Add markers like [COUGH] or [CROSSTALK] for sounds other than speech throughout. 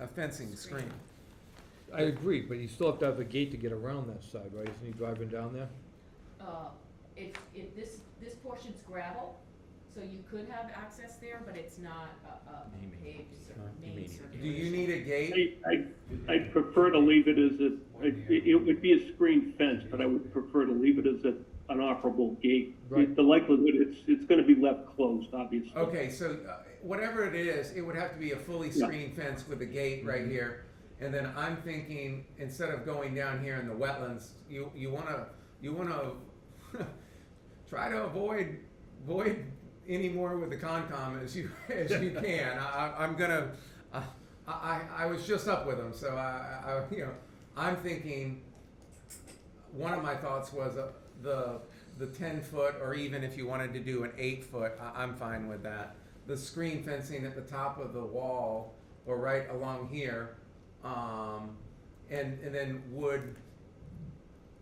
a fencing screen. I agree, but you still have to have a gate to get around that side, right? Isn't he driving down there? Uh, If, if this, this portion's gravel, so you could have access there, but it's not a, a You mean- paved cir- no, you mean- main circulation. Do you need a gate? I, I, I prefer to leave it as a, it, it would be a screen fence, but I would prefer to leave it as a, an operable gate. Right. The likelihood, it's, it's gonna be left closed, obviously. Okay, so uh, whatever it is, it would have to be a fully Yeah. screened fence with a gate right here. And then I'm thinking, instead of going down here in the wetlands, you, you wanna, you wanna [LAUGHS] try to avoid, avoid any more with the Concom as you, [LAUGHS] as you can. I, I- I'm gonna, I, I, I was just up with them, so I, I, you know, I'm thinking, one of my thoughts was uh, the the ten foot, or even if you wanted to do an eight foot, I, I'm fine with that. The screen fencing at the top of the wall, or right along here, um, and and then would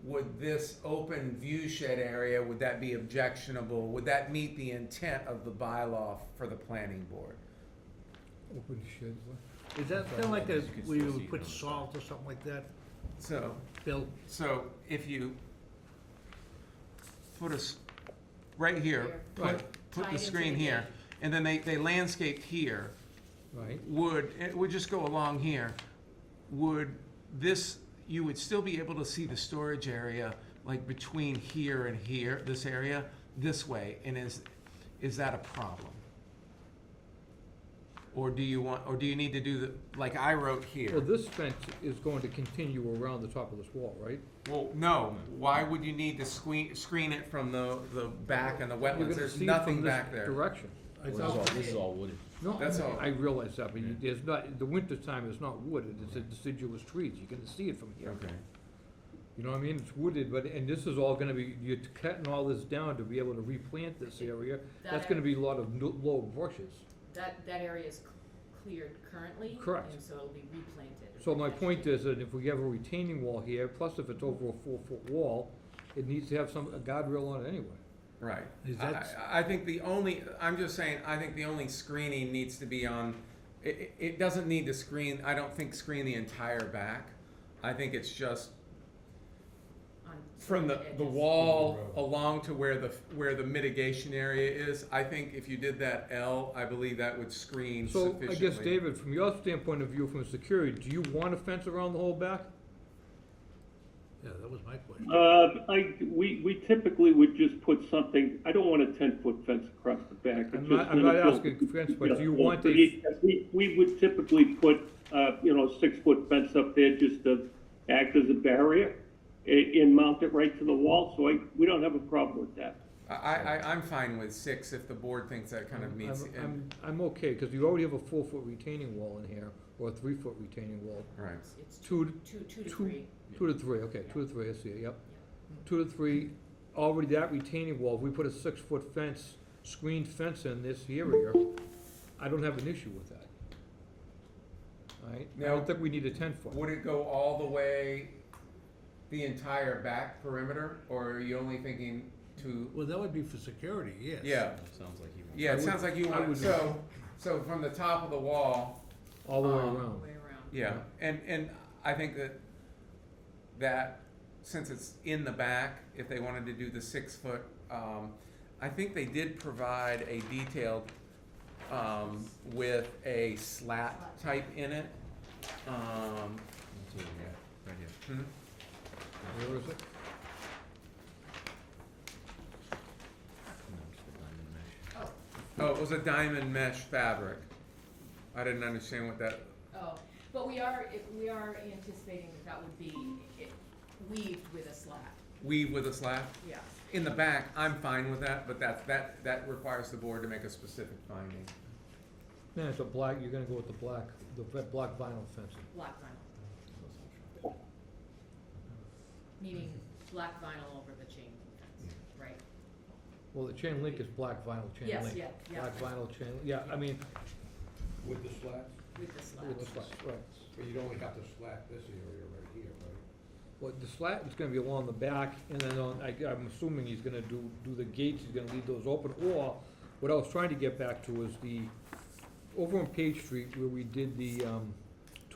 would this open view shed area would that be objectionable? Would that meet the intent of the bylaw for the planning board? Open shed, what? Is that kind Sorry. of like a, You can where you still see would it put on the side. salt or something like that, So Bill? so if you put us right here, Right. put put Tie it the into screen the here, gate. and then they they landscaped here. right? would, it would just go along here, would this, you would still be able to see the storage area, like between here and here, this area, this way, and is, is that a problem? Or do you want, or do you need to do the, like I wrote Well, here? this fence is going to continue around the top of this wall, right? Well, no, why would you need to screen, screen it from the, the back and the You're wetlands, gonna there's see it nothing from this back there. Direction. This is all, this is all wooded. No, That's all. I realize that, but you- there's not, the winter time is not wooded, it's a deciduous trees, you can see it from here. Okay, You know what I mean? It's wooded, but, and this is all gonna be, you're cutting all this down to be able to replant this area. That's That- gonna be a lot of no- low bushes. That, that area is cl- cleared currently. Correct. And so it'll be replanted. So my point is that if we have a retaining wall here, plus if it's over a four-foot wall, it needs to have some, a guardrail on it anyway. right. Is I- that- I, I think the only, I'm just saying, I think the only screening needs to be on, it, it- it doesn't need to screen, I don't think screen the entire back. I think it's just On- from the, the edges. wall along to where the, where the mitigation area is. I think if you did that L, I believe that would screen So sufficiently. I guess, David, from your standpoint of view, from security, do you want a fence around the whole back? Yeah, that was my question. Uh, I, we, we typically would just put something, I don't want a ten-foot fence across the back. It's I'm just not- I'm gonna not build- asking for fence, but Yeah, do you well, want a- We, we- we would typically put, uh, you know, six-foot fence up there just to act as a barrier and, and mount it right to the wall, so I, we don't have a problem with that. I, I, I- I'm fine with six if the board thinks that kind of meets, I'm- and- I'm, I'm okay, because you already have a four-foot retaining wall in here, or a three-foot retaining wall. right. It's two, Two, two, to- two to two- three. two to three, okay, two to three, I see it, yep. Two to three, already that retaining wall, if we put a six-foot fence, screened fence in this area, I don't have an issue with that. All right, I Now- don't think we need a ten-foot. Would it go all the way, the entire back perimeter, or are you only thinking to Well, that would be for security, yes. Yeah, Sounds like you want. yeah, I it would- sounds like you I want, would- so, so from the top of the wall, All the way Um, All around. the way around. yeah, and, and I think that, that, since it's in the back, if they wanted to do the six foot, um, I think they did provide a detailed, um, with a slat type in it. Um, That's what we got, Right here. hmm, Where is it? No, just the diamond mesh. Oh, oh, it was a diamond mesh fabric. I didn't understand what that, oh, but we are, if- we are anticipating that that would be i- weaved with a slat, weave with a slat? yeah. In the back, I'm fine with that, but that, that, that requires the board to make a specific finding. Man, it's a black, you're gonna go with the black, the ve- black vinyl fencing. Black vinyl, meaning Mm-hmm. black vinyl over the chain link fence, right? Well, the chain link is black vinyl chain Yes, link. yeah, yeah. Black vinyl chain, yeah, I mean, With the slats, With the slat. with the slat, right. but you'd only have to slat this area right here, right? Well, the slat is gonna be along the back, and then on, I, I'm assuming he's gonna do, do the gates, he's gonna leave those open, or, what I was trying to get back to was the, over on Page Street, where we did the, um,